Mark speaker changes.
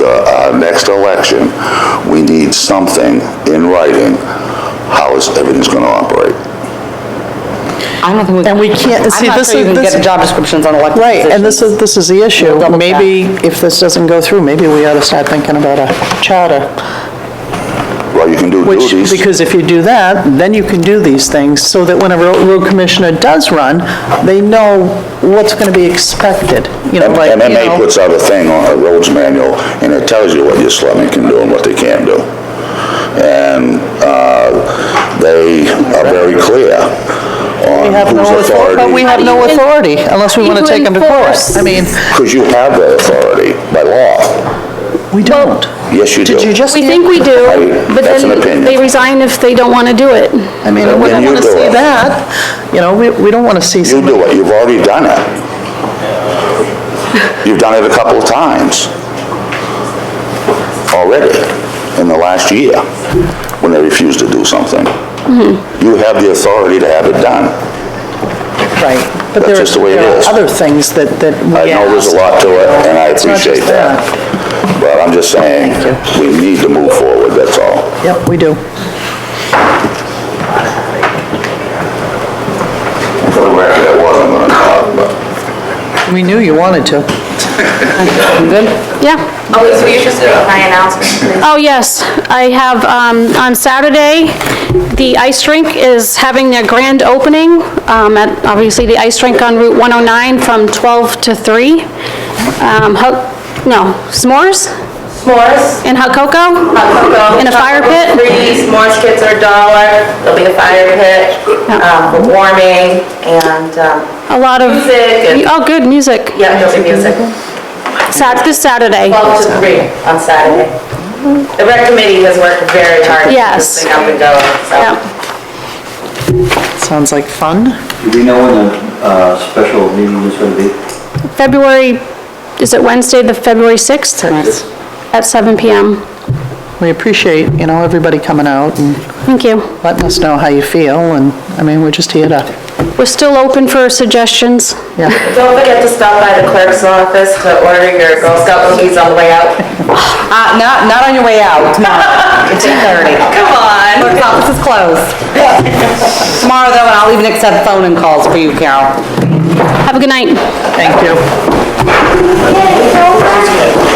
Speaker 1: uh, our next election, we need something in writing, how is everything's gonna operate.
Speaker 2: I don't think we.
Speaker 3: And we can't- see,
Speaker 2: I'm not
Speaker 3: this
Speaker 2: sure you
Speaker 3: is-
Speaker 2: can
Speaker 3: this-
Speaker 2: get job descriptions on elected
Speaker 3: Right,
Speaker 2: positions.
Speaker 3: and this is, this is the issue.
Speaker 2: We'll double check.
Speaker 3: Maybe if this doesn't go through, maybe we ought to start thinking about a charter.
Speaker 1: Well, you can do
Speaker 3: Which,
Speaker 1: duties.
Speaker 3: because if you do that, then you can do these things, so that when a ro- road commissioner does run, they know what's going to be expected, you know, like, you
Speaker 1: MMA
Speaker 3: know.
Speaker 1: puts out a thing on a roads manual, and it tells you what your selectmen can do and what they can't do. And uh, they are very clear on
Speaker 3: We have
Speaker 1: whose
Speaker 3: no authority, but
Speaker 1: authority,
Speaker 3: we have no
Speaker 4: How do you en-
Speaker 3: authority unless we
Speaker 4: how do
Speaker 3: want to
Speaker 4: you
Speaker 3: take them to court.
Speaker 4: enforce?
Speaker 3: I mean,
Speaker 1: because you have that authority by law.
Speaker 3: we don't.
Speaker 1: Yes, you do.
Speaker 3: Did you just?
Speaker 4: We think we do,
Speaker 1: I-
Speaker 4: but
Speaker 1: that's an
Speaker 4: then
Speaker 1: opinion.
Speaker 4: they resign if they don't want to do it.
Speaker 3: I mean, we
Speaker 1: Then
Speaker 3: don't
Speaker 1: you
Speaker 3: want to
Speaker 1: do
Speaker 3: see
Speaker 1: it.
Speaker 3: that. You know, we, we don't want to see
Speaker 1: You
Speaker 3: somebody.
Speaker 1: do it, you've already done it. You've done it a couple of times already in the last year when they refused to do something.
Speaker 3: Mm-hmm.
Speaker 1: You have the authority to have it done.
Speaker 3: Right, but there
Speaker 1: That's just the way
Speaker 3: are
Speaker 1: it
Speaker 3: there are
Speaker 1: is.
Speaker 3: other things that, that we
Speaker 1: I
Speaker 3: ask.
Speaker 1: know there's a lot to it, and I
Speaker 3: It's not just
Speaker 1: appreciate that. But I'm just saying, we need to move forward, that's all.
Speaker 3: that. Yep, we do.
Speaker 1: For the record, I wasn't gonna talk, but
Speaker 3: We knew you wanted to.
Speaker 4: Yeah.
Speaker 5: Always be interested in my announcement.
Speaker 4: Oh, yes. I have, um, on Saturday, the ice rink is having their grand opening um, at, obviously, the ice rink on Route 109 from 12 to 3. Um, ho- No, s'mores
Speaker 5: S'mores.
Speaker 4: and hot cocoa?
Speaker 5: hot cocoa,
Speaker 4: In a fire
Speaker 5: chocolate
Speaker 4: pit?
Speaker 5: Free s'mores kits are a dollar. There'll be a fire pit um, for warming and, um,
Speaker 4: A lot of...
Speaker 5: Music and-
Speaker 4: Oh, good, music.
Speaker 5: yeah, there'll be music.
Speaker 4: Sat, this Saturday.
Speaker 5: 12 to 3 on Saturday. The rec committee has worked very hard to get
Speaker 4: Yes.
Speaker 5: this thing up and going, so.
Speaker 4: Yeah.
Speaker 3: Sounds like fun.
Speaker 6: Do we know when the uh, special meeting is going to be?
Speaker 4: February, is it Wednesday, the February 6th? At 7 PM.
Speaker 3: We appreciate, you know, everybody coming out and
Speaker 4: Thank you.
Speaker 3: letting us know how you feel, and, I mean, we're just here to,
Speaker 4: We're still open for suggestions.
Speaker 3: yeah.
Speaker 5: Don't forget to stop by the clerk's office to order your Girl Scout cookies on the way out.
Speaker 2: Uh, not, not on your way out, no. It's 8:30.
Speaker 5: Come on.
Speaker 2: Clerk's office is closed. Tomorrow, though, and I'll even accept phone and calls for you, Carol.
Speaker 4: Have a good night.
Speaker 3: Thank you.